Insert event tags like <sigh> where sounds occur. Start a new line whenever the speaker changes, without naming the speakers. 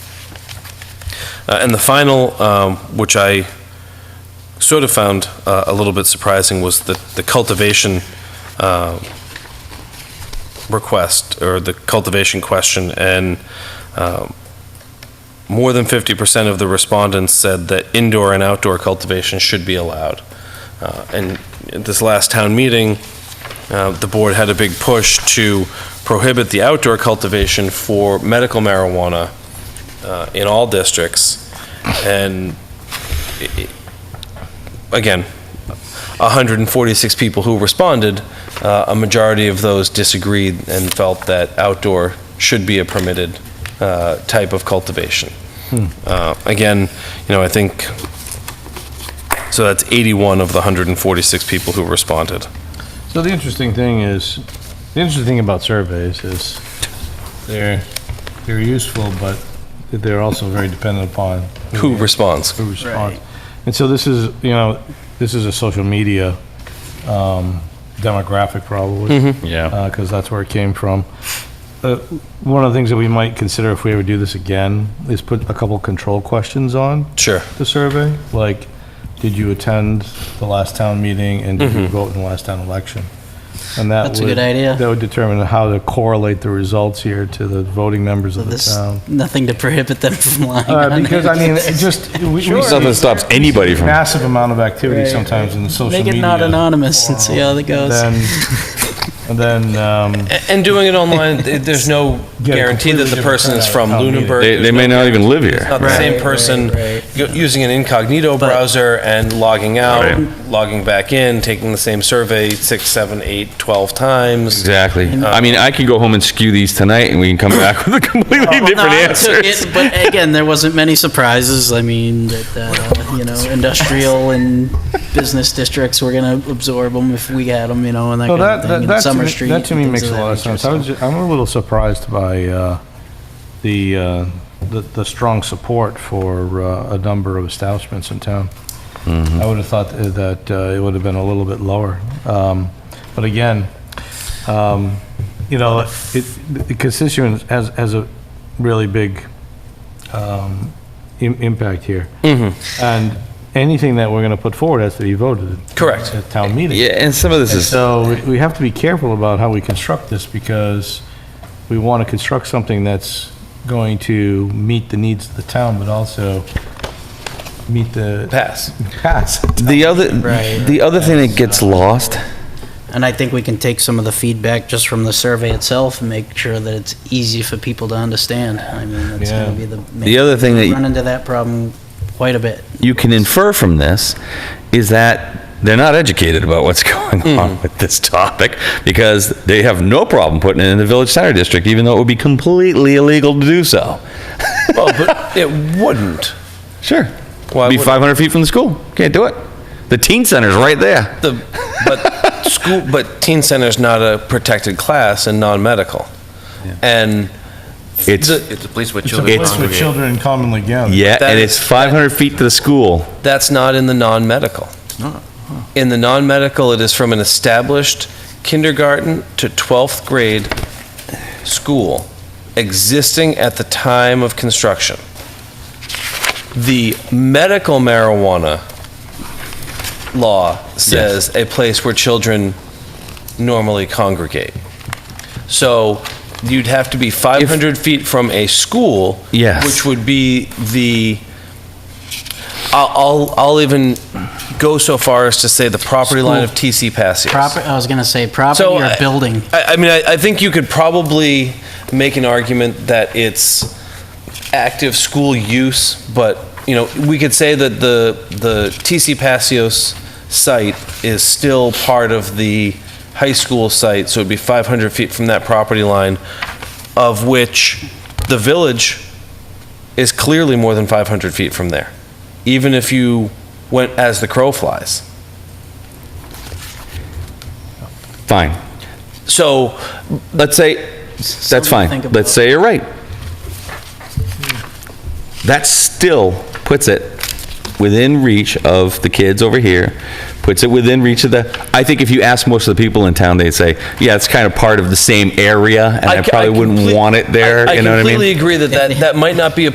Uh, And the final, um, which I sort of found uh, a little bit surprising, was the the cultivation uh, request, or the cultivation question, and um, more than 50% of the respondents said that indoor and outdoor cultivation should be allowed. Uh, And at this last town meeting, uh, the board had a big push to prohibit the outdoor cultivation for medical marijuana uh, in all districts. And i- i- again, 146 people who responded, uh, a majority of those disagreed and felt that outdoor should be a permitted uh, type of cultivation.
Hmm.
Uh, Again, you know, I think, so that's 81 of the 146 people who responded.
So the interesting thing is, the interesting thing about surveys is they're, they're useful, but they're also very dependent upon
Who
Hmm.
responds?
who responds. And so this is, you know, this is a social media um, demographic probably. Yeah. Because that's where it came from. Uh, One of the things that we might consider if we ever do this again is put a couple control questions on
Sure.
the survey, like, did you attend the last town meeting and did you vote in the last town election? And that
Mm-hmm. That's a
would-
good idea.
That would determine how to correlate the results here to the voting members of the
There's
town.
nothing to prohibit them from lying.
Um, <laughs> Uh,
on
because
<laughs> it.
I mean, it just we, we see
Nothing stops anybody from.
massive amount of activity
Right,
sometimes in the social
Make
media.
it not anonymous and see how that
And
goes.
then, and <laughs> then um,
And doing it
<laughs>
online, th- there's no
Get a
guarantee that the
completely
person is from
different kind of
Lunenburg.
They, they may not even live here.
Not the same
Right,
person
right,
go- using an incognito browser and logging out,
Right.
logging back in, taking the same survey six, seven, eight, 12 times.
Exactly. I mean, I can go home and skew these tonight, and we can come back with a completely
No,
different
I
answer.
took it, But again, there wasn't many surprises. I mean, that, uh, you know, industrial and business districts were gonna absorb them if we had them, you know, and that
so
kind
that
of
that,
thing.
that,
And
to
Summer
me,
Street.
that to me
and
makes
things
a
of
lot of
that nature,
sense. I was ju- I'm a little surprised by uh, the, uh, the the strong support for uh, a number of establishments in town. I would have thought that uh, it would have been a little bit lower, um, but again, um, you know, it, the constituents has has a really big um, im- impact here, and anything that we're going to put forward has to be voted.
Correct.
At town meeting.
Yeah, and some of this
And
is
So we- we have to be careful about how we construct this because we want to construct something that's going to meet the needs of the town, but also meet the
Pass.
past.
the other.
Right.
The other thing that gets lost.
And I think we can take some of the feedback just from the survey itself and make sure that it's easy for people to understand. I mean, that's
Yeah.
gonna be the.
The other thing that-
We Run into that problem quite a bit.
you can infer from this is that they're not educated about what's <laughs> going on with this topic because they have no problem putting it in the village center district, even though it would be completely illegal to do so.
Well, Oh, but it wouldn't.
Sure.
Why
be
would-
500 feet from the school. Can't do it. The teen center's right there.
The, but school, but teen center's not a protected class and non-medical. And
It's
the-
It's a place where
It's a
children
place where
congregate.
children commonly gather.
yeah,
that
and
is-
it's 500 feet to the school.
that's not in the non-medical. In the non-medical, it is from an established kindergarten to 12th grade school existing at the time of construction. The medical marijuana law says a place where children normally congregate. So you'd have to be 500 feet from a school.
Yes.
Which would be the, I'll, I'll- I'll even go so far as to say the property line of TC Passios.
Proper, I was gonna say property
So, uh,
or
I-
building.
I, I mean, I, I think you could probably make an argument that it's active school use, but, you know, we could say that the, the TC Passios site is still part of the high school site, so it'd be 500 feet from that property line, of which the village is clearly more than 500 feet from there, even if you went as the crow flies.
Fine.
So,
Let's say that's
to think
fine.
about.
Let's say you're right. That still puts it within reach of the kids over here, puts it within reach of the, I think if you ask most of the people in town, they'd say, yeah, it's kind of part of the same area, and I
c-
probably
complete-
wouldn't want it there,
I-
you know what I mean?
I completely agree that that, that might not be a